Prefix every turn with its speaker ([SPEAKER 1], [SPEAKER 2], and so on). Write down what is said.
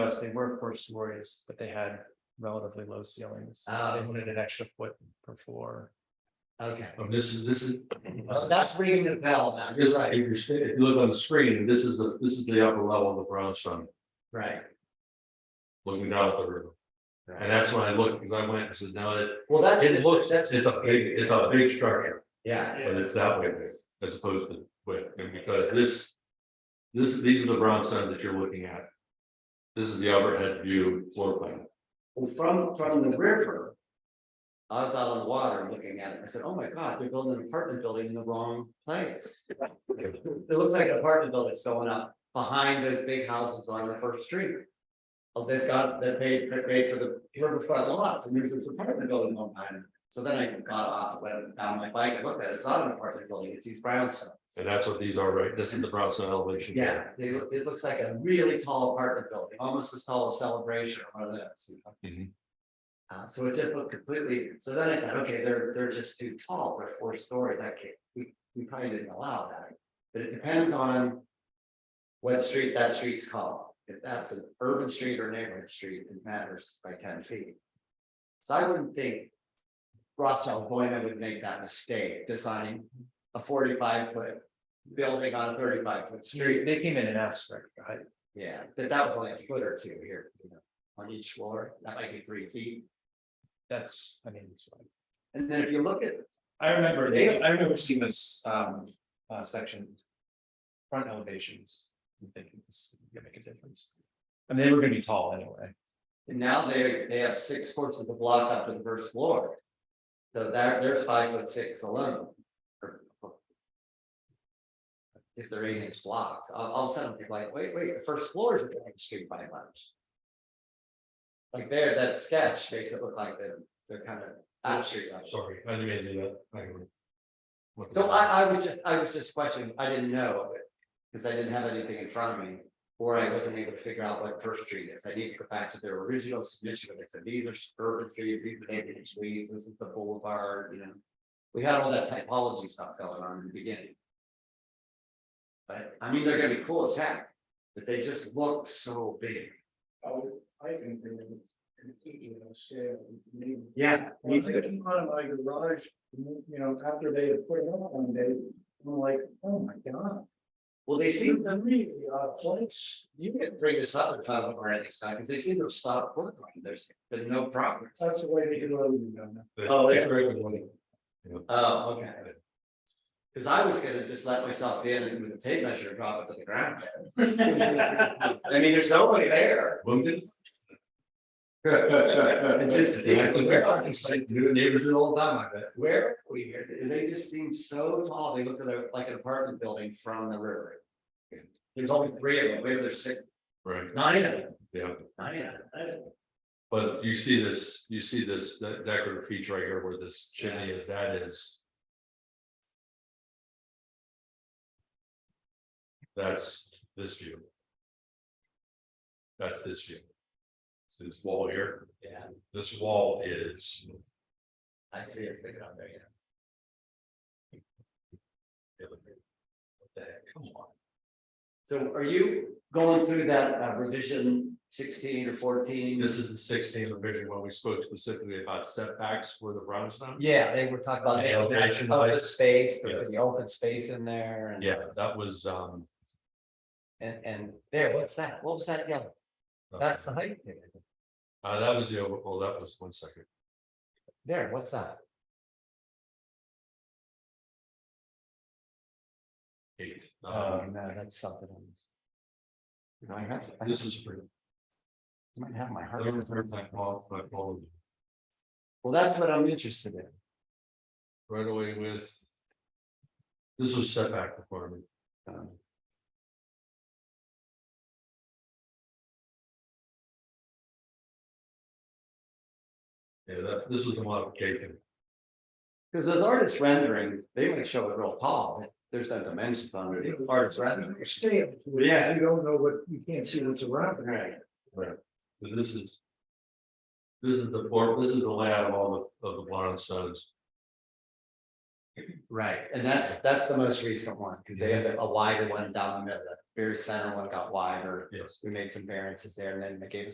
[SPEAKER 1] us, they were four stories, but they had relatively low ceilings. They
[SPEAKER 2] Oh.
[SPEAKER 1] wanted an extra foot per floor.
[SPEAKER 2] Okay,
[SPEAKER 3] Oh, This is, this is.
[SPEAKER 2] Well, that's ringing the bell now,
[SPEAKER 3] This,
[SPEAKER 2] you're
[SPEAKER 3] if
[SPEAKER 2] right,
[SPEAKER 3] you're, sta- if you look on the screen, this is the, this is the upper level of the brownstone,
[SPEAKER 2] right,
[SPEAKER 3] looking down at the river. And
[SPEAKER 2] right.
[SPEAKER 3] that's when I looked, because I went and said, no, it,
[SPEAKER 2] Well, that's,
[SPEAKER 3] it looks,
[SPEAKER 2] that's,
[SPEAKER 3] it's a big, it's a big structure,
[SPEAKER 2] yeah,
[SPEAKER 3] but it's that way, big, as opposed to, but, and because this. This, these are the brownstones that you're looking at. This is the overhead view floor plan.
[SPEAKER 2] Well, from, from the river. I was out on the water looking at it, I said, oh my God, they're building an apartment building in the wrong place. It looks like an apartment building that's going up behind those big houses on the first street. Oh, they've got, they paid, they paid for the riverfront lots, and there's this apartment building on behind. So then I got off, went down my bike, I looked at it, it's not an apartment building, it's these brownstones.
[SPEAKER 3] And that's what these are, right? This is the brownstone elevation.
[SPEAKER 2] Yeah, they, look- it looks like a really tall apartment building, almost as tall as Celebration, or one of those. you know?
[SPEAKER 3] Mhm.
[SPEAKER 2] Uh, so it just looked completely, so then I thought, okay, they're, they're just too tall, they're four stories, that can't, we, we probably didn't allow that. But it depends on what street that street's called, if that's an urban street or neighborhood street, it matters by ten feet. So I wouldn't think Rothschild Boyman would make that mistake, designing a forty-five foot building on a thirty-five foot
[SPEAKER 1] They
[SPEAKER 2] street.
[SPEAKER 1] they came in and asked for extra height.
[SPEAKER 2] Yeah, but that was only a foot or two here, you know, on each floor, that might be three feet.
[SPEAKER 1] That's, I mean, it's. fine.
[SPEAKER 2] And then if you look at,
[SPEAKER 1] I remember, they, I remember seeing this um uh section. Front elevations, and thinking this is gonna make a difference. And they were gonna be tall anyway.
[SPEAKER 2] and now they, they have six fourths of the block up to the first floor. So there, there's five foot six alone. If they're eight inch blocks, all, all of a sudden, people are like, wait, wait, the first floor is a block street by much. Like there, that sketch makes it look like they're, they're kind of at street level.
[SPEAKER 3] Sorry, I didn't mean to do that. I can-
[SPEAKER 2] So I, I was just, I was just questioning, I didn't know, because I didn't have anything in front of me. Or I wasn't able to figure out what First Street is, I need to go back to their original submission, where they said, these are urban streets, these are neighborhood streets, this is the boulevard, you know. We had all that typology stuff going on in the beginning. But, I mean, they're gonna be cool as heck, but they just look so big.
[SPEAKER 4] Oh, I can bring them completely on scale.
[SPEAKER 2] Yeah.
[SPEAKER 4] When I came out of my garage, you know, after they had put it up one day, I'm like, oh my god.
[SPEAKER 2] Well, they
[SPEAKER 4] This is
[SPEAKER 2] seem, uh,
[SPEAKER 4] a really odd place.
[SPEAKER 2] you can bring this up in front of them or anything, because they seem to have stopped working, there's been no progress.
[SPEAKER 4] That's the way they do it, you know.
[SPEAKER 2] Oh, yeah.
[SPEAKER 3] Great.
[SPEAKER 2] Oh, okay. Cause I was gonna just let myself in and with a tape measure and drop it to the ground. I mean, there's nobody there.
[SPEAKER 3] Wounded?
[SPEAKER 2] It's just-
[SPEAKER 3] New neighbors do it all the time, I bet.
[SPEAKER 2] Where are we here? And They just seem so tall. They look at their- like an apartment building from the river. There's only three of them. Maybe there's six,
[SPEAKER 3] Right,
[SPEAKER 2] nine of them,
[SPEAKER 3] yeah,
[SPEAKER 2] nine of them.
[SPEAKER 3] but you see this, you see this de- decorative feature right here where this chimney is, that is. That's this view. That's this view. So this wall here,
[SPEAKER 2] Yeah,
[SPEAKER 3] this wall is,
[SPEAKER 2] I see it figured out there, yeah.
[SPEAKER 3] What the heck? come on,
[SPEAKER 2] So are you going through that uh, revision sixteen or fourteen?
[SPEAKER 3] this is the sixteenth revision when we spoke specifically about setbacks for the brownstone.
[SPEAKER 2] Yeah, they were talking about
[SPEAKER 3] And
[SPEAKER 2] the elevation
[SPEAKER 3] elevation
[SPEAKER 2] of the
[SPEAKER 3] heights.
[SPEAKER 2] space, there
[SPEAKER 3] Yes.
[SPEAKER 2] was the open space in there and.
[SPEAKER 3] Yeah, that was, um.
[SPEAKER 2] And, and there, what's that? What was that again? That's the height thing.
[SPEAKER 3] Uh, that was the, over- oh, that was one second.
[SPEAKER 2] There, what's that?
[SPEAKER 3] Eight.
[SPEAKER 2] Oh,
[SPEAKER 3] Um,
[SPEAKER 2] no, that's something. else. You know, I have, I
[SPEAKER 3] This is for.
[SPEAKER 2] might have my heart.
[SPEAKER 3] Right
[SPEAKER 2] Well, that's what I'm interested in.
[SPEAKER 3] away with. This was setback requirement.
[SPEAKER 2] Um,
[SPEAKER 3] Yeah, that's, this was a modification.
[SPEAKER 2] Because as artists rendering, they might show it real tall. There's no dimensions on it. It's Artist rendering.
[SPEAKER 4] Scale.
[SPEAKER 2] Yeah.
[SPEAKER 4] You don't know what, you can't see what's around.
[SPEAKER 2] Right.
[SPEAKER 3] So this is. This is the board, this is the layout of all the, of the brownstones.
[SPEAKER 2] Right, and that's, that's the most recent one, because they have a wider one down the middle, very center one got wider.
[SPEAKER 3] Yes.
[SPEAKER 2] We made some variances there and then they gave us